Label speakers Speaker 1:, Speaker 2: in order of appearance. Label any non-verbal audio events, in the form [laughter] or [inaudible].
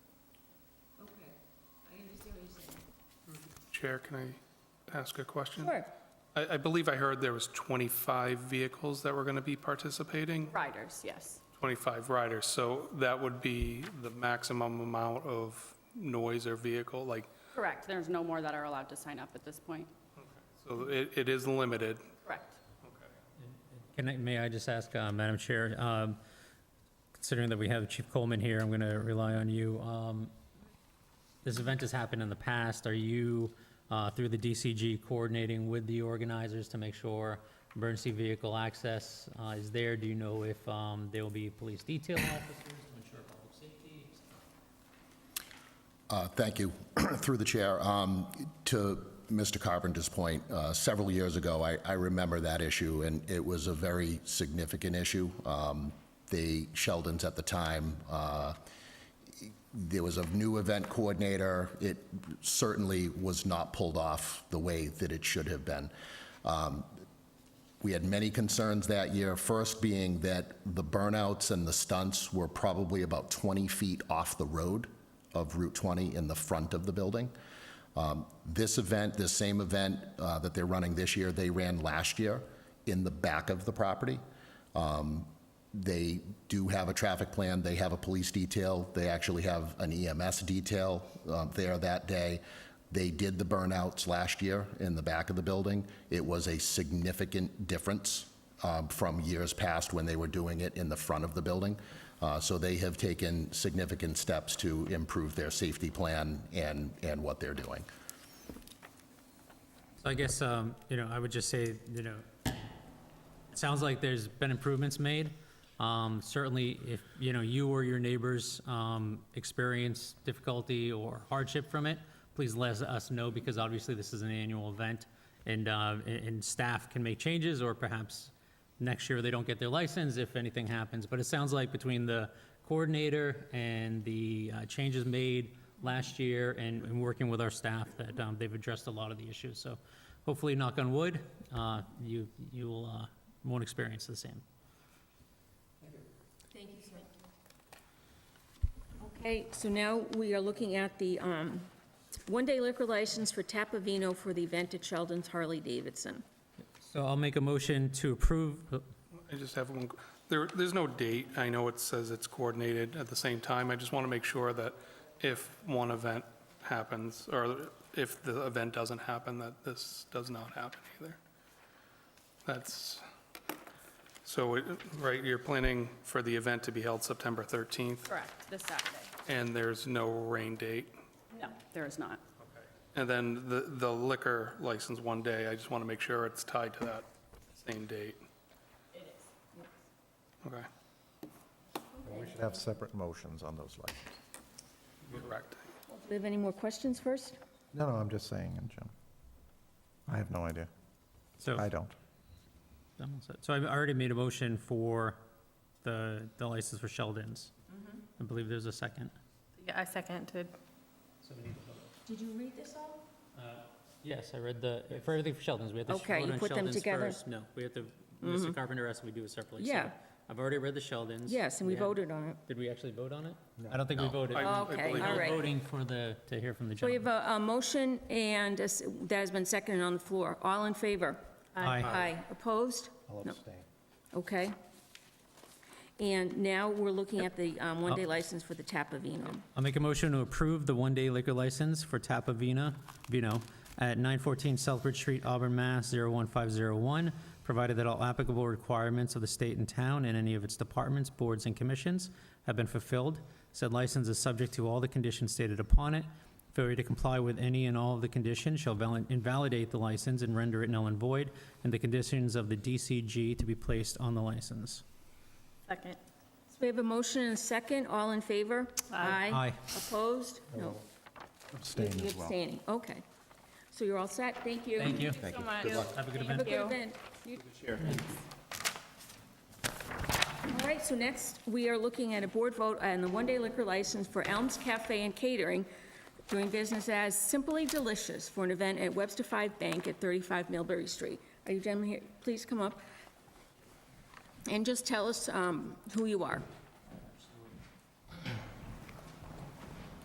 Speaker 1: Chair, can I ask a question?
Speaker 2: Sure,
Speaker 1: I, I believe I heard there was 25 vehicles that were going to be participating,
Speaker 2: riders, yes.
Speaker 1: 25 riders, so that would be the maximum amount of noise or vehicle, like,
Speaker 2: Correct, there's no more that are allowed to sign up at this point.
Speaker 1: so it, it is limited.
Speaker 2: Correct.
Speaker 3: Can I, may I just ask, uh, Madam Chair, um, considering that we have Chief Coleman here, I'm going to rely on you. Um, This event has happened in the past. Are you, uh, through the DCG, coordinating with the organizers to make sure emergency vehicle access uh, is there? Do you know if um, there will be police detail officers to ensure public safety?
Speaker 4: Uh, Thank you. [clears throat] Through the chair, um, to Mr. Carpenter's point, uh, several years ago, I I remember that issue, and it was a very significant issue. Um, The Sheldons at the time, uh, there was a new event coordinator. It certainly was not pulled off the way that it should have been. Um, we had many concerns that year, first being that the burnouts and the stunts were probably about 20 feet off the road of Route 20 in the front of the building. Um, This event, this same event uh, that they're running this year, they ran last year in the back of the property. Um, They do have a traffic plan, they have a police detail, they actually have an EMS detail uh, there that day. They did the burnouts last year in the back of the building. It was a significant difference um, from years past when they were doing it in the front of the building. Uh, So they have taken significant steps to improve their safety plan and, and what they're doing.
Speaker 3: So I guess, um, you know, I would just say, you know, it sounds like there's been improvements made. Um, Certainly, if, you know, you or your neighbors um, experience difficulty or hardship from it, please let us know, because obviously this is an annual event, and, uh, and- and staff can make changes, or perhaps next year they don't get their license if anything happens. But it sounds like between the coordinator and the uh, changes made last year and, and working with our staff, that um, they've addressed a lot of the issues. So hopefully, knock on wood, uh, you, you will, uh, won't experience the same.
Speaker 5: Thank you, sir. Okay, so now we are looking at the um, one-day liquor license for Tapavino for the event at Sheldon's Harley Davidson.
Speaker 3: So I'll make a motion to approve, oh,
Speaker 1: I just have one, there, there's no date, I know it says it's coordinated at the same time, I just want to make sure that if one event happens, or if the event doesn't happen, that this does not happen either. That's, so, it- right, you're planning for the event to be held September 13th,
Speaker 2: Correct, this Saturday.
Speaker 1: and there's no rain date.
Speaker 2: No, there is not.
Speaker 1: And then the, the liquor license one day, I just want to make sure it's tied to that same date. It is. Okay,
Speaker 6: We should have separate motions on those licenses.
Speaker 1: correct.
Speaker 5: Do we have any more questions first?
Speaker 6: No, no, I'm just saying in general. I have no idea.
Speaker 3: so,
Speaker 6: I don't.
Speaker 3: so I've already made a motion for the, the license for Sheldon's. I believe there's a second.
Speaker 7: Yeah, I seconded.
Speaker 5: Did you read this all?
Speaker 3: Yes, I read the, for everything for Sheldon's, we had to sh-
Speaker 5: Okay,
Speaker 3: vote
Speaker 5: you
Speaker 3: on
Speaker 5: put them
Speaker 3: Sheldon's
Speaker 5: together? Mm-hmm.
Speaker 3: first. No, we have to, Mr. Carpenter asked me to do it separately. so
Speaker 5: Yeah.
Speaker 3: I've already read the Sheldon's.
Speaker 5: Yes, and we
Speaker 3: had-
Speaker 5: voted on it.
Speaker 3: Did we actually vote on it? I don't think we voted.
Speaker 1: I- I
Speaker 5: Okay,
Speaker 1: believe
Speaker 5: all
Speaker 1: it-
Speaker 3: We're
Speaker 5: right.
Speaker 3: Voting for the, to hear from the
Speaker 5: So we have
Speaker 3: gentleman.
Speaker 5: a a motion and a s- that has been seconded on the floor. All in favor?
Speaker 3: Aye.
Speaker 5: Opposed?
Speaker 6: I'll
Speaker 5: No.
Speaker 6: abstain.
Speaker 5: Okay. And now we're looking at the um, one-day license for the Tapavino.
Speaker 3: I'll make a motion to approve the one-day liquor license for Tapa Vina, Vino, at 914 Southbridge Street, Auburn, Mass. 01501, provided that all applicable requirements of the state and town and any of its departments, boards, and commissions have been fulfilled. Said license is subject to all the conditions stated upon it. Failure to comply with any and all of the conditions shall val- invalidate the license and render it null and void, and the conditions of the DCG to be placed on the license.
Speaker 7: Second.
Speaker 5: So we have a motion and a second. All in favor? Aye.
Speaker 3: Aye.
Speaker 5: Opposed? No.
Speaker 6: Abstain
Speaker 5: You're
Speaker 6: as well.
Speaker 5: Abstaining, okay. So you're all set, thank you.
Speaker 3: Thank you.
Speaker 7: So much.
Speaker 3: Have a good event.
Speaker 5: Have a good event. All right, so next, we are looking at a board vote on the one-day liquor license for Elms Cafe and Catering, doing business as Simply Delicious for an event at Webster Five Bank at 35 Millbury Street. Are you gentlemen here? Please come up and just tell us um, who you are.